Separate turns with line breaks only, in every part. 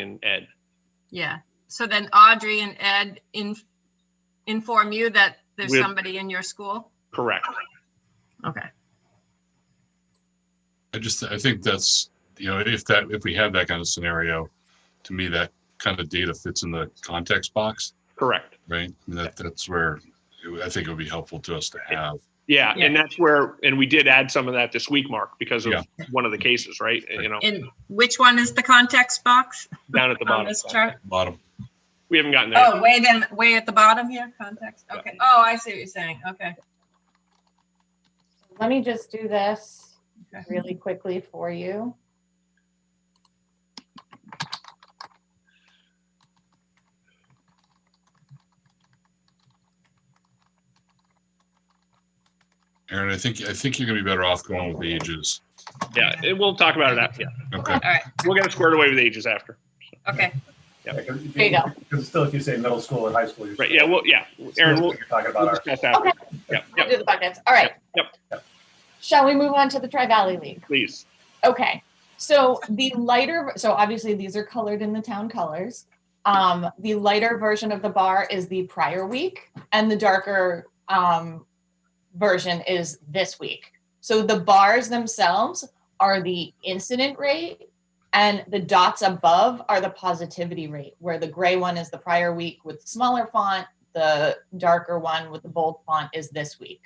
and Ed.
Yeah, so then Audrey and Ed in, inform you that there's
With-
somebody in your school?
Correct.
Okay,
I just, I think that's, you know, if that, if we have that kind of scenario, to me, that kind of data fits in the context box,
Correct.
right? I mean, that, that's where it- I think it would be helpful to us to have.
Yeah,
Yeah.
and that's where, and we did add some of that this week, Mark, because of
Yeah.
one of the cases, right? You know,
and which one is the context box
down at the
on
bottom.
this chart?
Bottom,
We haven't gotten there.
Oh, way then, way at the bottom here, context,
Yeah.
okay, oh, I see what you're saying, okay.
Let me just do this
Okay.
really quickly for you.
Aaron, I think, I think you're gonna be better off going with the ages.
Yeah, and we'll talk about it after. Yeah,
Okay,
All right,
we'll get it squared away with ages after.
okay,
There you go.
Because still, if you say middle school and high school, you're.
Right, yeah, well, yeah, Aaron, we'll
You're talking
we'll
about our,
discuss after.
Okay.
Yep,
We'll
yep,
do the buckets. All right.
Yep,
Shall we move on to the Tri Valley League?
please.
Okay. So the lighter, so obviously these are colored in the town colors. Um, the lighter version of the bar is the prior week and the darker um, version is this week. So the bars themselves are the incident rate and the dots above are the positivity rate where the gray one is the prior week with smaller font, the darker one with the bold font is this week.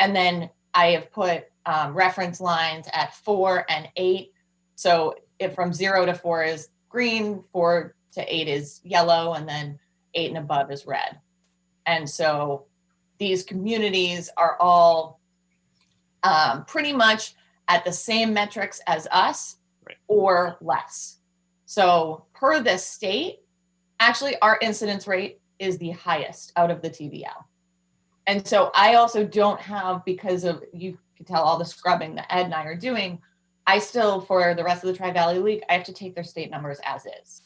And then I have put um, reference lines at four and eight. So if from zero to four is green, four to eight is yellow, and then eight and above is red. And so these communities are all um, pretty much at the same metrics as us
Right.
or less. So per this state, actually our incidence rate is the highest out of the TVL. And so I also don't have, because of, you can tell all the scrubbing that Ed and I are doing, I still, for the rest of the Tri Valley League, I have to take their state numbers as is.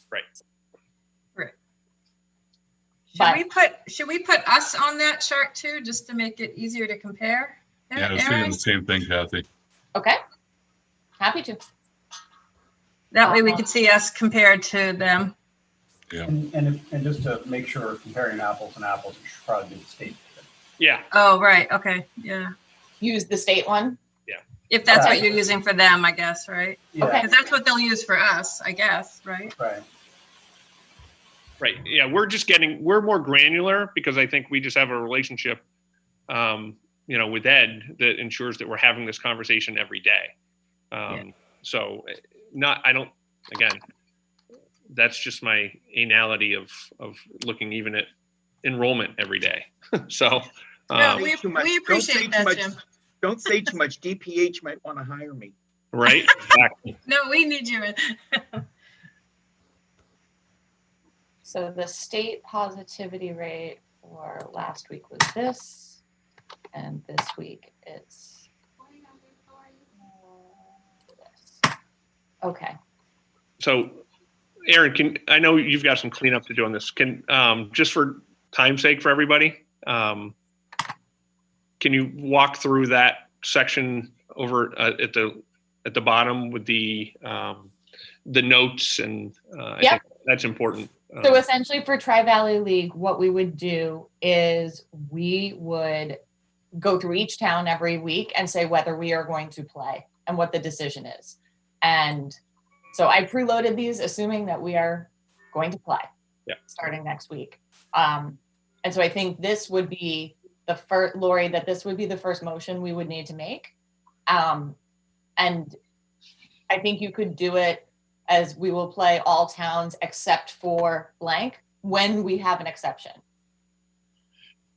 should
But-
we put, should we put us on that chart too, just to make it easier to compare?
yeah, I was
Aaron?
thinking the same thing, Kathy.
Okay? Happy to.
That way we could see us compared to them,
and, and, if- and just to make sure we're comparing apples and apples, we should probably do the state.
Yeah,
oh, right, okay, yeah,
Use the state one.
if that's what
Right.
you're using for them, I guess, right?
Yeah,
Okay.
Because that's what they'll use for us, I guess, right?
right.
right. Yeah, we're just getting, we're more granular because I think we just have a relationship, um, you know, with Ed that ensures that we're having this conversation every day. Um, so eh, not, I don't, again, that's just my anality of, of looking even at enrollment every day. So,
No,
um,
we,
Too much.
we
Don't say
appreciate
too
that,
much.
Jim.
Don't say too much. DPH might want to hire me.
right?
No, we need you. in.
So the state positivity rate for last week was this, and this week it's. this. Okay.
So, Aaron, can, I know you've got some cleanup to do on this. Can, um, just for time's sake for everybody, um, can you walk through that section over uh, at the, at the bottom with the, um, the notes and, uh, I
Yep.
think that's important.
So
Um,
essentially for Tri Valley League, what we would do is we would go through each town every week and say whether we are going to play and what the decision is. And so I preloaded these assuming that we are going to play.
Yeah.
Starting next week. Um, and so I think this would be the first, Lori, that this would be the first motion we would need to make. Um, and I think you could do it as we will play all towns except for blank when we have an exception.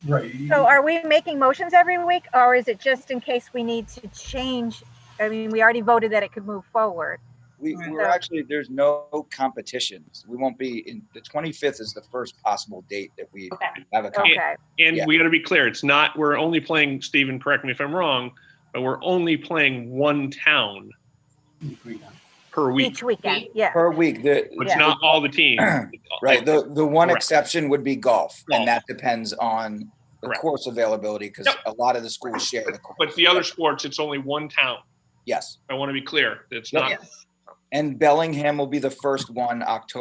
Right. you-
So are we making motions every week or is it just in case we need to change? I mean, we already voted that it could move forward.
We,
Right.
we're actually, there's no competitions. We won't be in, the 25th is the first possible date that we
Okay.
have a competition.
Okay,
Um, And
Yeah.
we gotta be clear, it's not, we're only playing, Stephen, correct me if I'm wrong, but we're only playing one town
agree now.
per week.
each weekend, yeah.
Per week, the,
It's
Yeah.
not all the teams.
right, the, the one
Correct.
exception would be golf,
Golf.
and that depends on the
Correct.
course availability, because
Yep.
a lot of the schools share the course.
But the other sports, it's only one town.
Yes,
I want to be clear. It's
Yep.
not
Yes.
and Bellingham will be the first one, October